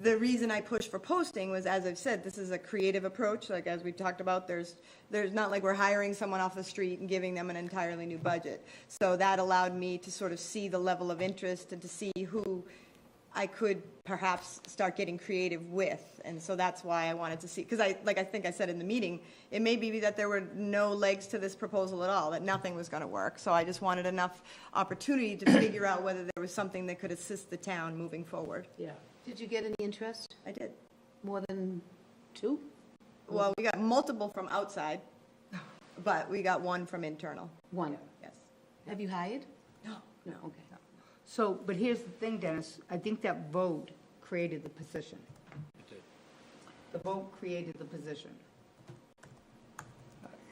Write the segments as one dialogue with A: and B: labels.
A: the reason I pushed for posting was, as I've said, this is a creative approach, like as we talked about, there's, there's not like we're hiring someone off the street and giving them an entirely new budget. So that allowed me to sort of see the level of interest and to see who I could perhaps start getting creative with. And so that's why I wanted to see, because I, like I think I said in the meeting, it may be that there were no legs to this proposal at all, that nothing was going to work. So I just wanted enough opportunity to figure out whether there was something that could assist the town moving forward.
B: Yeah. Did you get any interest?
A: I did.
B: More than two?
A: Well, we got multiple from outside, but we got one from internal,
B: One.
A: yes.
B: Have you hired?
A: No.
B: No, okay.
C: So, but here's the thing, Dennis, I think that vote created the position. The vote created the position.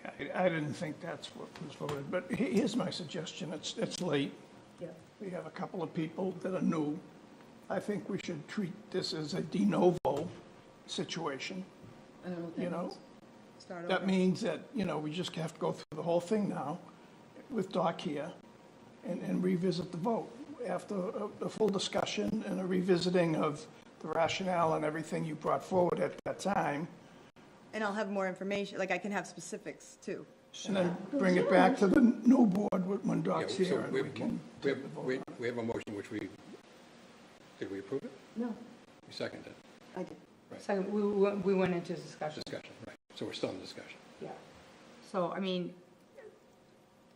D: I, I didn't think that's what was voted, but he- here's my suggestion, it's, it's late.
C: Yeah.
D: We have a couple of people that are new. I think we should treat this as a de novo situation,
B: I don't know what
D: you
B: that
D: know?
B: means.
A: Start over.
D: That means that, you know, we just have to go through the whole thing now with Doc here and, and revisit the vote. After a, a full discussion and a revisiting of the rationale and everything you brought forward at that time,
A: And I'll have more information, like I can have specifics too.
D: and then bring it back to the new board when- when
E: Yeah,
D: Doc's
E: so
D: here and
E: we
D: we
E: have-
D: can
E: we
D: take
E: have-
D: the vote.
E: We we have a motion which we, did we approve it?
B: No,
E: We seconded it,
B: I did.
C: Second, we, we we went into discussion,
E: discussion, right. So we're still in discussion.
C: yeah. So, I mean,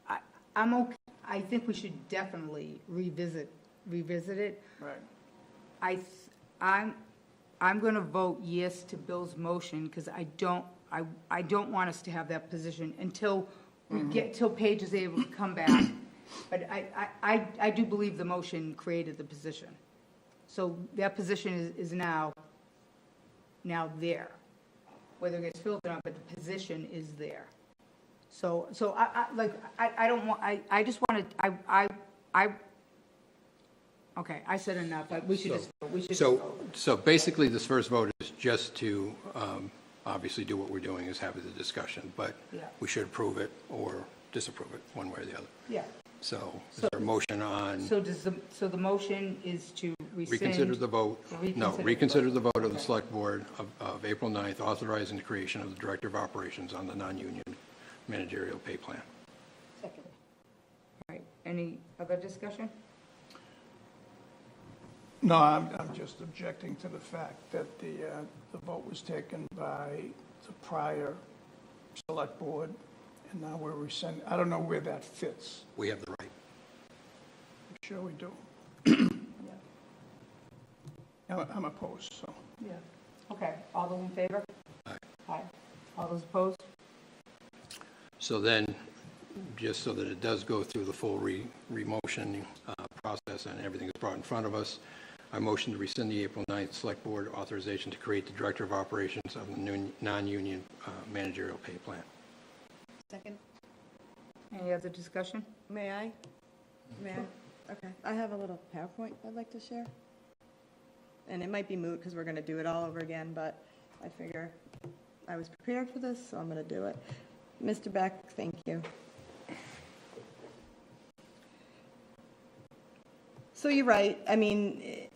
C: I, I'm okay, I think we should definitely revisit, revisit it.
D: Right.
C: I, th- I'm, I'm going to vote yes to Bill's motion because I don't, I, I don't want us to have that position until we get, till Paige is able to come back. But I, I, I- I do believe the motion created the position. So that position is, is now, now there. Whether it gets filled or not, but the position is there. So, so I, I, like, I, I don't want, I, I just want to, I, I, I, okay, I said enough, but we should just, vote. we should just
E: So,
C: vote.
E: so basically, this first vote is just to, um, obviously, do what we're doing, is have the discussion, but
C: Yeah.
E: we should approve it or disapprove it, one way or the other.
C: Yeah.
E: So is there a motion on
C: So does the, so the motion is to rescind?
E: reconsider the vote? No,
C: Reconsider.
E: reconsider the vote of the Select Board of, of April 9th, authorizing the creation of the Director of Operations on the non-union managerial pay plan.
C: Second. All right, any other discussion?
D: No, I'm, I'm just objecting to the fact that the, uh, the vote was taken by the prior select board, and now we're rescinding, I don't know where that fits.
E: We have the right.
D: I'm Sure we do. I'm I'm opposed, so.
C: Yeah. Okay, all those in favor? Aye. All those opposed?
E: So then, just so that it does go through the full re, remotion uh, process and everything is brought in front of us, I motion to rescind the April 9th Select Board authorization to create the Director of Operations of the nun- non-union uh, managerial pay plan.
B: Second?
C: Any other discussion?
A: May I? May I? Okay. I have a little PowerPoint I'd like to share. And it might be moot because we're going to do it all over again, but I figure I was prepared for this, so I'm going to do it. Mr. Beck, thank you. So you're right. I mean, eh,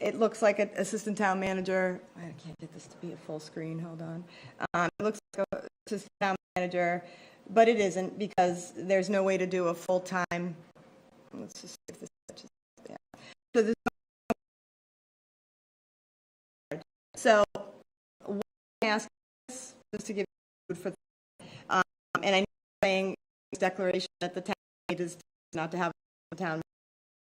A: it looks like an assistant town manager. I can't get this to be a full screen. Hold on. Um, it looks like a assistant town manager, but it isn't because there's no way to do a full-time, let's just see if this, catches- yeah. So this. So, what I ask is, just to give you food for, thought, um, and I know I'm saying this declaration that the town made is not to have a town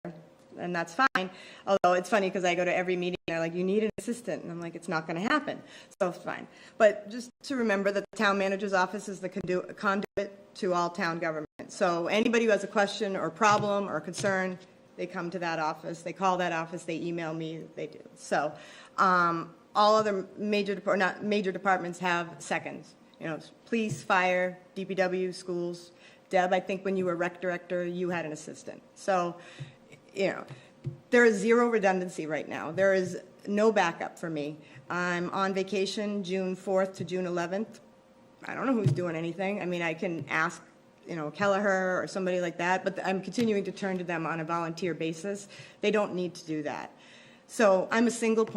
A: manager, and that's fine, although it's funny because I go to every meeting and they're like, you need an assistant, and I'm like, it's not going to happen, so it's fine. But just to remember that the town manager's office is the condu- conduit to all town government. So anybody who has a question or problem or concern, they come to that office, they call that office, they email me, they do. So um, all other major, depar- not major departments have seconds. You know, it's police, fire, DPW, schools. Deb, I think when you were rec director, you had an assistant. So, you know, there is zero redundancy right now. There is no backup for me. I'm on vacation June 4th to June 11th. I don't know who's doing anything. I mean, I can ask, you know, Kelleher or somebody like that, but I'm continuing to turn to them on a volunteer basis. They don't need to do that. So I'm a single point